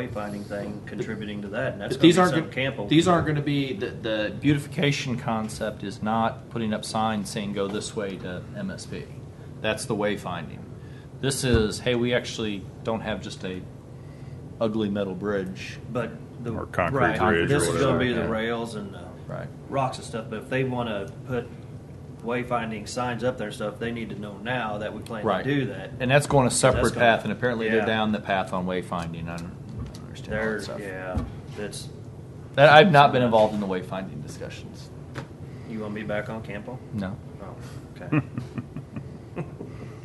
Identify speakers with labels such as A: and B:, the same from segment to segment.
A: wayfinding thing contributing to that, and that's
B: But
A: going
B: these
A: to be
B: aren't,
A: some
B: go-
A: Campbell.
B: these aren't gonna be, the, the beautification concept is not putting up signs saying go this way to MSP. That's the wayfinding. This is, hey, we actually don't have just a ugly metal bridge.
A: But the
C: Or concrete
A: right,
C: bridge or
A: this is going
C: whatever,
A: to be the
C: yeah.
A: rails and the
B: Right.
A: rocks and stuff. But if they want to put wayfinding signs up there and stuff, they need to know now that we plan
B: Right.
A: to do that.
B: And that's going a separate
A: That's gonna-
B: path, and apparently they're
A: yeah.
B: down the path on wayfinding. I don't I don't understand all that
A: There's
B: stuff.
A: yeah, that's
B: That, I've not been involved in the wayfinding discussions.
A: you want me back on Campbell?
B: No.
A: Oh, okay.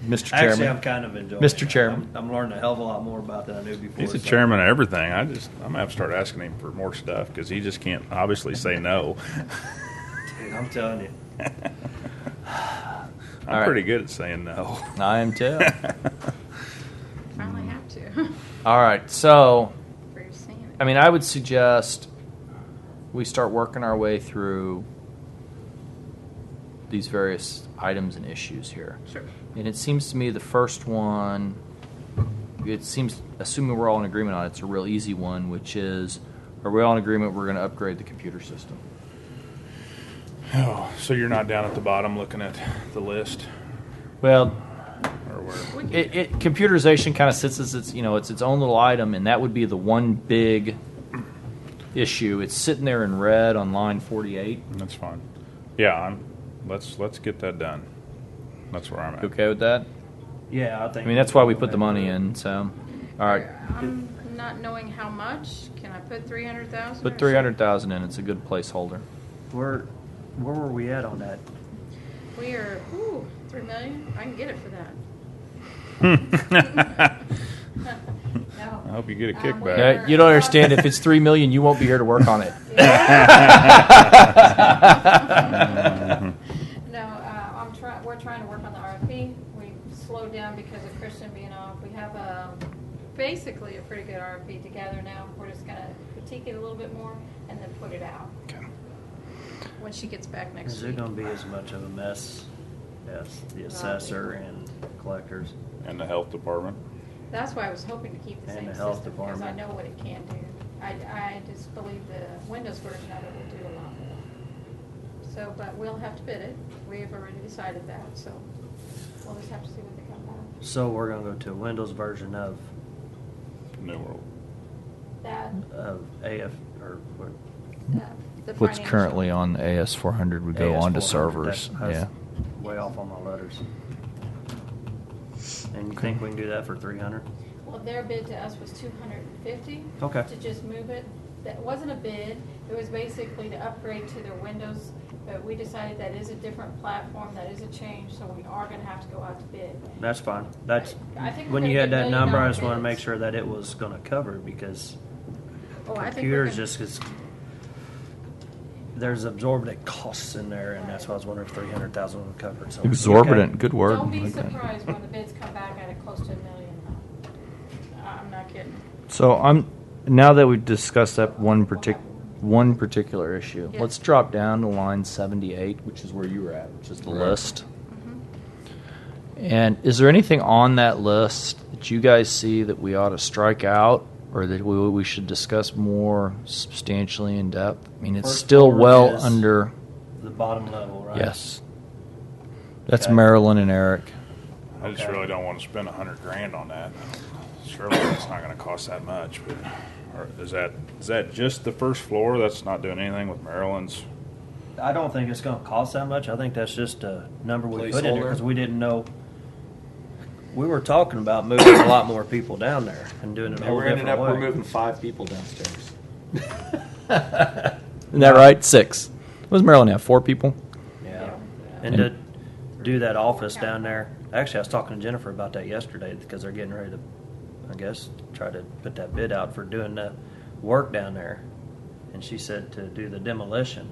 B: Mr.
A: Actually, I'm
B: Chairman,
A: kind of enjoying.
B: Mr.
A: it.
B: Chairman.
A: I'm, I'm learning a hell of a lot more about than I knew before.
C: He's the
A: so-
C: chairman of everything. I just, I'm gonna have to start asking him for more stuff because he just can't obviously say no.
A: Dude, I'm telling you.
C: I'm
B: right.
C: pretty good at saying no.
B: I am too.
D: Finally have to.
B: All right, so
D: For your sanity.
B: I mean, I would suggest we start working our way through these various items and issues here.
D: Sure.
B: And it seems to me the first one, it seems, assuming we're all in agreement on it, it's a real easy one, which is are we all in agreement we're going to upgrade the computer system?
C: Oh, so you're not down at the bottom looking at the list
B: Well,
C: or where?
D: We can-
B: it, it computerization kind of sits as its you know it's its own little item, and that would be the one big issue. It's sitting there in red on line forty-eight.
C: That's fine. Yeah, I'm, let's, let's get that done. That's where I'm
B: You
C: at.
B: okay with that?
A: Yeah, I think.
B: I mean, that's why we put the money in. So, all right,
D: I'm not knowing how much. Can I put three hundred thousand?
B: put three hundred thousand in. It's a good placeholder.
A: Where, where were we at on that?
D: We are, ooh, three million? I can get it for that. No.
C: I hope you get a
D: Um,
C: kickback.
D: we're-
B: Yeah, you don't understand. If it's three million, you won't be here to work on it.
D: No, uh, I'm trying, we're trying to work on the RFP. We slowed down because of Christian being off. We have a, basically a pretty good RFP together now. We're just gonna critique it a little bit more and then put it out
B: Okay.
D: when she gets back next
A: Is it
D: week.
A: going to be as much of a mess as the assessor and collectors?
C: And the health department.
D: That's why I was hoping to keep the
A: And
D: same
A: the health
D: system, because I
A: department.
D: know what it can do. I, I just believe the Windows version of it will do a lot more. So, but we'll have to bid it. We have already decided that, so we'll just have to see what they come back.
A: So we're going to go to a Windows version of,
C: New World.
D: That,
A: of AF, or what?
D: uh, the
B: uh, What's
D: financial-
B: currently on AS four hundred would go
A: AS400,
B: on to
A: that-
B: servers.
A: I was
B: Yeah.
A: Way off on my letters. And you think we can do that for three hundred?
D: Well, their bid to us was two hundred and fifty.
A: Okay.
D: To just move it. That wasn't a bid. It was basically to upgrade to their Windows, but we decided that is a different platform, that is a change, so we are gonna have to go out to bid.
A: That's fine. That's,
D: I think we're
A: when you
D: gonna
A: had
D: get
A: that number, I
D: million-dollar
A: just wanted to make
D: bids.
A: sure that it was going to cover because
D: Oh, I think we're
A: computers
D: gonna-
A: just because there's absorbent costs in there, and that's why I was wondering if three hundred thousand would cover it. So okay.
B: Exorbitant. Good word.
D: Don't be
B: Like that.
D: surprised when the bids come back at a close to a million. I'm not kidding.
B: So I'm now that we've discussed that one partic- one particular issue.
D: Yeah.
B: Let's drop down to line 78, which is where you were at, which is the
C: Right.
B: list. And is there anything on that list that you guys see that we ought to strike out or that we, we should discuss more substantially in depth? I mean, it's
A: First
B: still
A: forward
B: well
A: is-
B: under
A: The bottom level, right?
B: yes. That's
A: Okay.
B: Marilyn and Eric.
C: I just
A: Okay.
C: really don't want to spend a hundred grand on that. Surely it's not going to cost that much. But or is that is that just the first floor? That's not doing anything with Maryland's.
A: I don't think it's going to cost that much. I think that's just a number we put in there
B: Placeholder.
A: because we didn't know. We were talking about moving a lot more people down there and doing it a whole different way.
B: five people downstairs. Isn't that right? Six. What does Maryland have? Four people?
A: Yeah. And to do that office down there. Actually, I was talking to Jennifer about that yesterday because they're getting ready to, I guess, try to put that bid out for doing the work down there. And she said to do the demolition.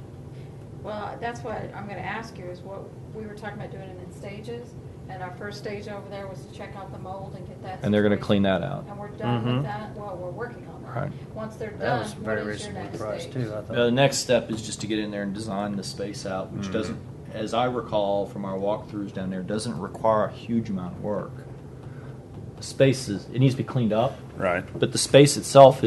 D: Well, that's what I'm gonna ask you is what, we were talking about doing it in stages. And our first stage over there was to check out the mold and get that.
B: And they're gonna
D: situation.
B: clean that out.
D: And we're done with
A: Mhm.
D: that. Well, we're working on that.
B: Right.
D: Once they're done,
A: That was
D: what
A: very
D: is your
A: reasonable
D: next
A: price
D: stage?
A: too, I thought.
B: the next step is just to get in there and design the space out, which doesn't, as I recall from our walkthroughs down there, doesn't require a huge amount of work. The space is, it needs to be cleaned up,
C: Right.
B: but the space itself